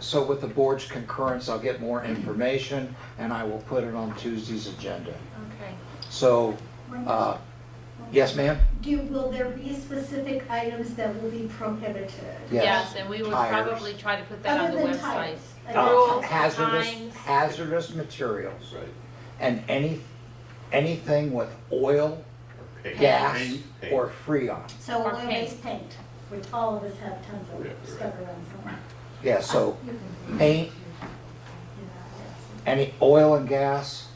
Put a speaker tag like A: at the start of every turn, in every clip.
A: so with the board's concurrence, I'll get more information and I will put it on Tuesday's agenda.
B: Okay.
A: So, uh, yes, ma'am?
C: Do, will there be specific items that will be prohibited?
A: Yes.
B: and we would
A: Tires.
B: probably try to put that on
C: Other
B: the
C: than
B: website.
C: tires.
A: Uh,
B: Rules,
A: Hazardous,
B: times.
A: hazardous materials
D: Right.
A: and any, anything with oil,
D: Or paint.
A: gas,
D: Paint, paint.
A: or freon.
C: So
B: Or
C: oil-based paint, which all of us have tons of
D: Yeah,
C: stuck around somewhere.
A: Yeah, so
C: You can
A: paint,
C: do that,
A: any oil and gas,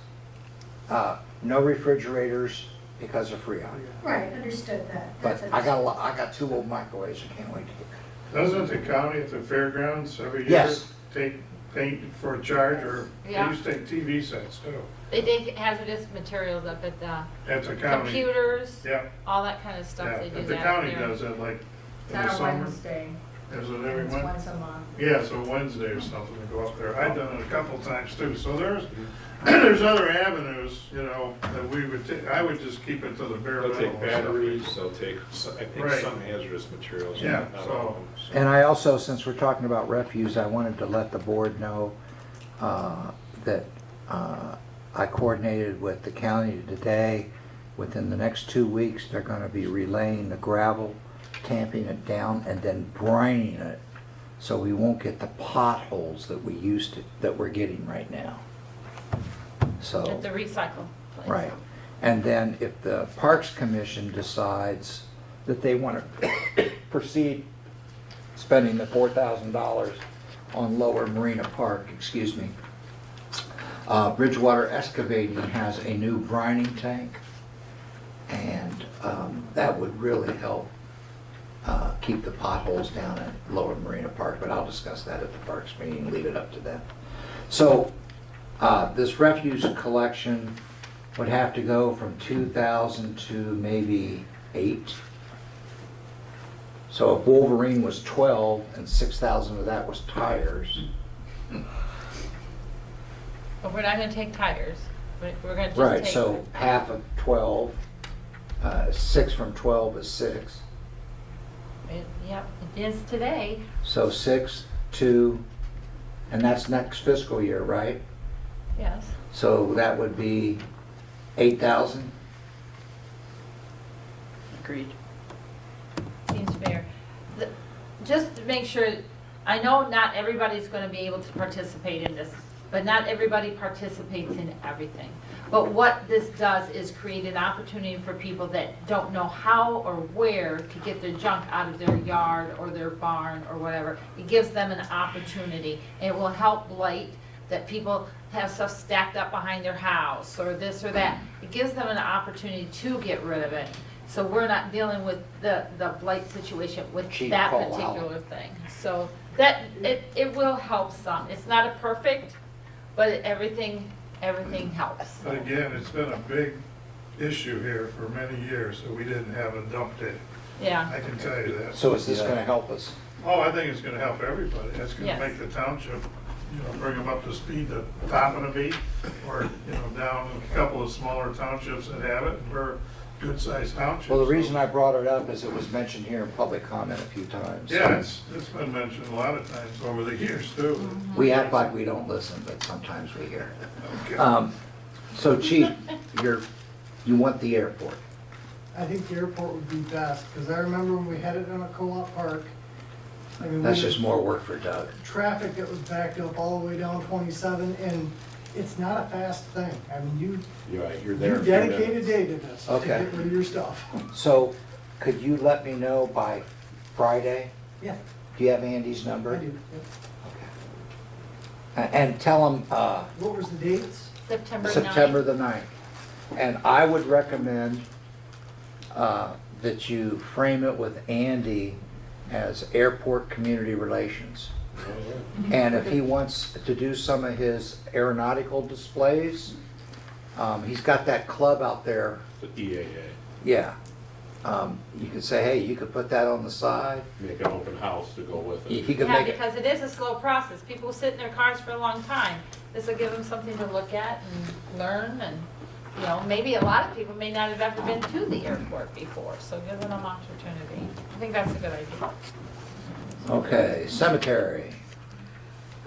A: uh, no refrigerators because of freon.
C: yes. Right, understood that.
A: But
C: That's
A: I got a lot, I got two old microwaves, I can't wait to get.
E: Doesn't the county at the fairgrounds every year?
A: Yes.
E: Take, paint for a charge, or they
B: Yeah.
E: used to take TV sets too,
B: They dig hazardous materials up at the
E: at the county.
B: computers,
E: Yeah,
B: all that kind of stuff
E: yeah,
B: they do that.
E: but the county
B: there.
E: does it like in
F: It's
E: the
F: on a
E: summer,
F: Wednesday,
E: is it every
F: it's
E: Wednesday?
F: once a month.
E: Yeah, so Wednesday or something to go up there, I've done it a couple times too, so there's, there's other avenues, you know, that we would, ta- I would just keep it to the bare
D: They'll
E: minimum.
D: take batteries, they'll take, so- I think,
E: Right.
D: some hazardous materials.
E: Yeah,
D: not
E: so-
D: all of them, so-
A: And I also, since we're talking about refuse, I wanted to let the board know uh, that uh, I coordinated with the county today. Within the next two weeks, they're going to be relaying the gravel, tamping it down, and then brining it. So we won't get the potholes that we used to, that we're getting right now. So.
B: At the recycle place.
A: Right. And then if the Parks Commission decides that they want to proceed spending the $4,000 on Lower Marina Park, excuse me, uh, Bridgewater Excavating has a new brining tank, and um, that would really help uh, keep the potholes down at Lower Marina Park, but I'll discuss that at the Parks meeting, leave it up to them. So uh, this refuse collection would have to go from 2,000 to maybe 8. So if Wolverine was 12 and 6,000 of that was tires,
B: But we're not gonna take tires, We're- we're gonna just take.
A: right, so half of 12, uh, 6 from 12 is 6.
B: It- Yep, it is today.
A: So 6, 2, and that's next fiscal year, right?
B: Yes,
A: So that would be 8,000?
G: Agreed.
B: seems fair. The- Just to make sure, I know not everybody's going to be able to participate in this, but not everybody participates in everything. But what this does is create an opportunity for people that don't know how or where to get their junk out of their yard or their barn or whatever. It gives them an opportunity. It will help blight that people have stuff stacked up behind their house or this or that. It gives them an opportunity to get rid of it. So we're not dealing with the, the blight situation with
A: Chief
B: that
A: call out.
B: particular thing. So that, it, it will help some. It's not a perfect, but everything, everything helps.
E: But again, it's been a big issue here for many years, that we didn't have a dump day.
B: Yeah,
E: I can tell you that.
A: So is this going to help us?
E: Oh, I think it's gonna help everybody. It's gonna
B: Yes.
E: make the township, you know, bring them up to speed, the top of the beat, or, you know, down a couple of smaller townships that have it, we're good-sized townships.
A: Well, the reason I brought it up is it was mentioned here in public comment a few times.
E: Yeah, it's, it's been mentioned a lot of times over the years, too.
A: We act like we don't listen, but sometimes we hear.
E: Okay.
A: Um, So Chief, you're, you want the airport.
H: I think the airport would be best, because I remember when we had it in a co-op park. I mean,
A: That's
H: we-
A: just more work for Doug.
H: Traffic that was backed up all the way down twenty-seven, and it's not a fast thing. I mean, you,
D: You're right, you're there.
H: you
D: in a few
H: dedicate a
D: minutes.
H: day to this, to
A: Okay.
H: get rid of your stuff.
A: So could you let me know by Friday?
H: Yeah,
A: Do you have Andy's
H: I
A: number?
H: do. yep.
A: Okay. A- And tell him uh,
H: What was the dates?
B: September 9th.
A: September the 9th. And I would recommend uh, that you frame it with Andy as airport community relations.
D: Oh, yeah.
B: Mm-hmm.
A: And if he wants to do some of his aeronautical displays, um, he's got that club out there,
D: The E EAA,
A: yeah. Um, you could say, hey, you could put that on the side.
D: make an open house to go with
A: He
D: it.
A: he could
B: Yeah,
A: make it,
B: because it is a slow process. People sit in their cars for a long time. This will give them something to look at and learn and, you know, maybe a lot of people may not have ever been to the airport before, so give them an opportunity. I think that's a good idea.
A: okay, cemetery.